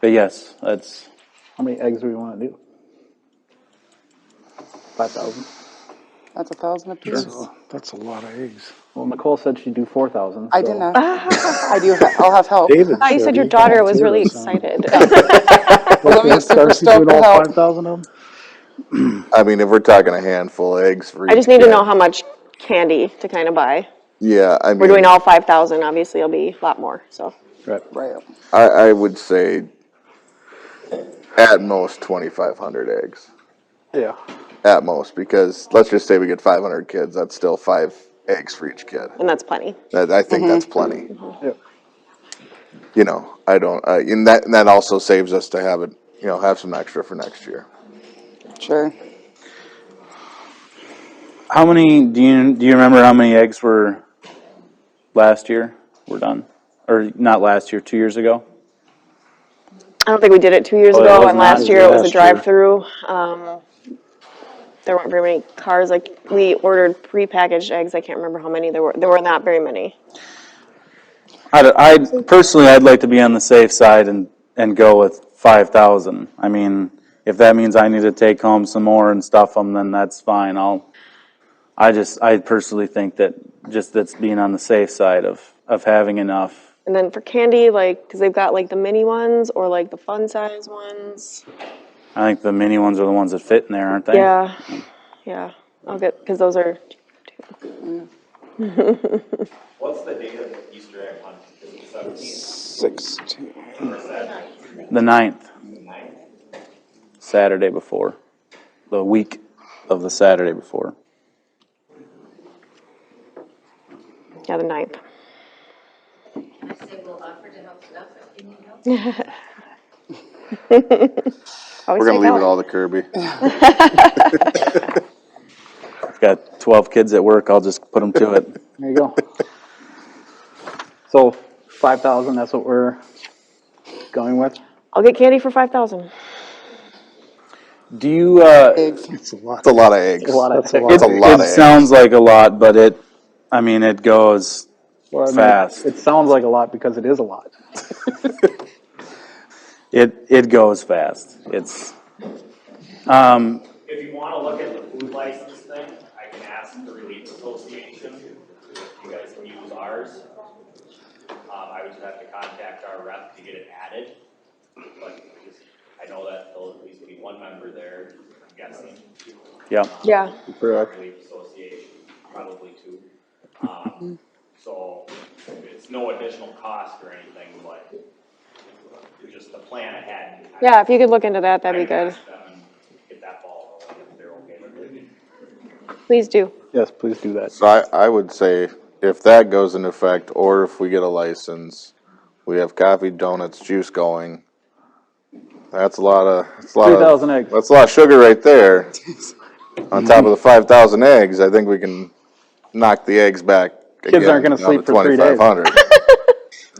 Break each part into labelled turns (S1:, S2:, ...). S1: But yes, that's
S2: How many eggs do we want to do? 5,000.
S3: That's a thousand apiece.
S4: That's a- That's a lot of eggs.
S2: Well, Nicole said she'd do 4,000.
S3: I
S2: so-
S3: didn't. I do. ha- I'll have help.
S4: David.
S5: Oh, you said
S4: said
S5: your
S4: he
S5: daughter was
S4: volunteered
S5: really
S4: or something.
S5: excited.
S3: Let me
S4: Darcy
S3: super stoked with
S4: doing all
S3: help.
S4: 5,000 of them?
S6: I mean, if we're talking a handful of eggs for
S5: I
S6: each
S5: just need to
S6: kid,
S5: know how much candy to kind of buy.
S6: Yeah, I mean,
S5: We're doing all five thousand, obviously it'll be a lot more, so.
S2: Right.
S3: Right.
S6: I, I would say at most 2,500 eggs.
S2: Yeah.
S6: At most, because let's just say we get 500 kids, that's still five eggs for each kid.
S5: And that's plenty.
S6: That, I think
S5: Mm-hmm.
S6: that's plenty.
S2: Yep.
S6: You know, I don't, uh, and that, and that also saves us to have it, you know, have some extra for next year.
S3: Sure.
S1: how many do you do you remember how many eggs were last year? Were done or not last year? Two years ago.
S5: I don't think we did it two years
S1: Oh, it
S5: ago,
S1: was
S5: and
S1: not
S5: last year it was
S1: last
S5: a
S1: year.
S5: drive-through. Um, There weren't very many cars, like, we ordered prepackaged eggs, I can't remember how many there were, there were not very many.
S1: I'd, I'd personally, I'd like to be on the safe side and and go with five thousand. I mean, if that means I need to take home some more and stuff them, then that's fine. I'll. I just, I personally think that just that's being on the safe side of of having enough.
S5: And then for candy, like, because they've got like the mini ones or like the fun size ones.
S1: I think the mini ones are the ones that fit in there, aren't they?
S5: Yeah, yeah, I'll get, because those are,
S7: What's the date of Easter egg hunt? Is it seventeenth?
S3: Sixteen.
S1: The ninth. Saturday before, the week of the Saturday before.
S5: yeah, the ninth.
S8: I say we'll offer to help stuff it, can you help?
S6: We're gonna leave it all to Kirby.
S1: I've got twelve kids at work. I'll just put them to it.
S2: There you go. so 5,000, that's what we're going with.
S5: I'll get candy for five thousand.
S1: Do you? Uh,
S3: Eggs.
S4: It's a lot.
S6: It's a lot of eggs.
S2: A lot of
S4: That's a
S2: eggs.
S4: lot.
S1: It,
S6: It's a lot
S1: it
S6: of eggs.
S1: sounds like a lot, but it, I mean, it goes.
S2: Well, I mean,
S1: Fast.
S2: It sounds like a lot because it is a lot.
S1: It it goes fast. It's.
S7: If you wanna look at the food license thing, I can ask the Relief Association, if you guys can use ours. Um, I would just have to contact our rep to get it added, but just- I know that there'll at least be one member there, I'm guessing,
S1: Yeah.
S5: Yeah,
S7: Relief Association, probably two. Um, so it's no additional cost or anything, but just the plan ahead. I-
S5: yeah, if you could look into that, that'd be
S7: I
S5: good.
S7: asked them and Get that ball rolling if they're okay with it.
S5: Please do.
S2: Yes, please do that.
S6: So I, I would say if that goes into effect, or if we get a license, we have coffee, donuts, juice going. That's a lot of, that's a lot of.
S2: 3,000 eggs.
S6: That's a lot of sugar right there. On top of the five thousand eggs, I think we can knock the eggs back.
S2: Kids aren't gonna sleep for three days.
S6: Twenty-five hundred.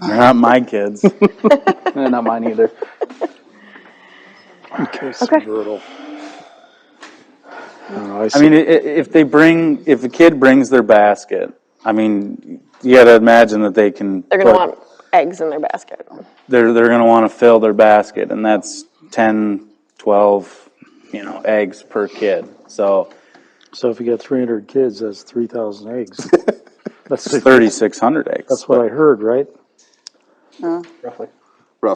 S1: They're not my kids.
S2: Eh, Not mine either.
S4: It's brutal. I don't know, I
S1: I mean, i- i- if they bring, if a kid brings their basket, I mean, you gotta imagine that they can.
S5: They're gonna
S1: put-
S5: want eggs in their basket.
S1: They're, they're gonna wanna fill their basket, and that's 10, 12, you know, eggs per kid. So
S4: So if you got three hundred kids, that's three thousand eggs. That's,
S1: thirty-six hundred eggs.
S4: that's what I heard, right?
S2: Roughly.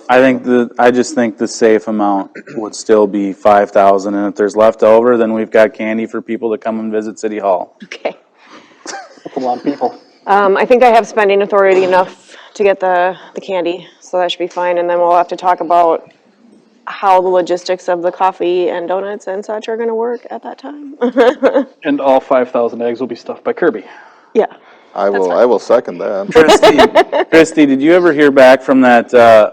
S1: I think the, I just think the safe amount would still be five thousand, and if there's left over, then we've got candy for people to come and visit City Hall.
S5: Okay.
S2: That's a lot of people.
S5: Um, I think I have spending authority enough to get the, the candy, so that should be fine, and then we'll have to talk about how the logistics of the coffee and donuts and such are gonna work at that time.
S2: And all 5,000 eggs will be stuffed by Kirby.
S5: Yeah.
S6: I will, I will second that.
S1: Christy, Christy, did you ever hear back from that, uh,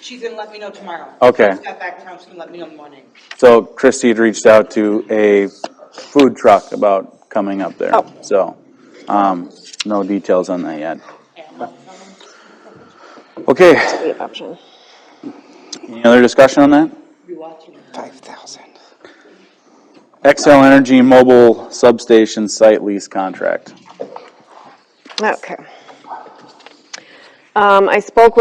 S9: She's gonna let me know tomorrow.
S1: Okay.
S9: She just got back town, she's gonna let me know in the morning.
S1: so Christy had reached out to a food truck about coming up there,
S5: Oh.
S1: so, um, no details on that yet. Okay,
S5: Great option.
S1: any other discussion on that?
S9: Be watching.
S3: Five thousand.
S1: XL Energy Mobile Substation Site Lease Contract.
S5: Okay. Um, I spoke with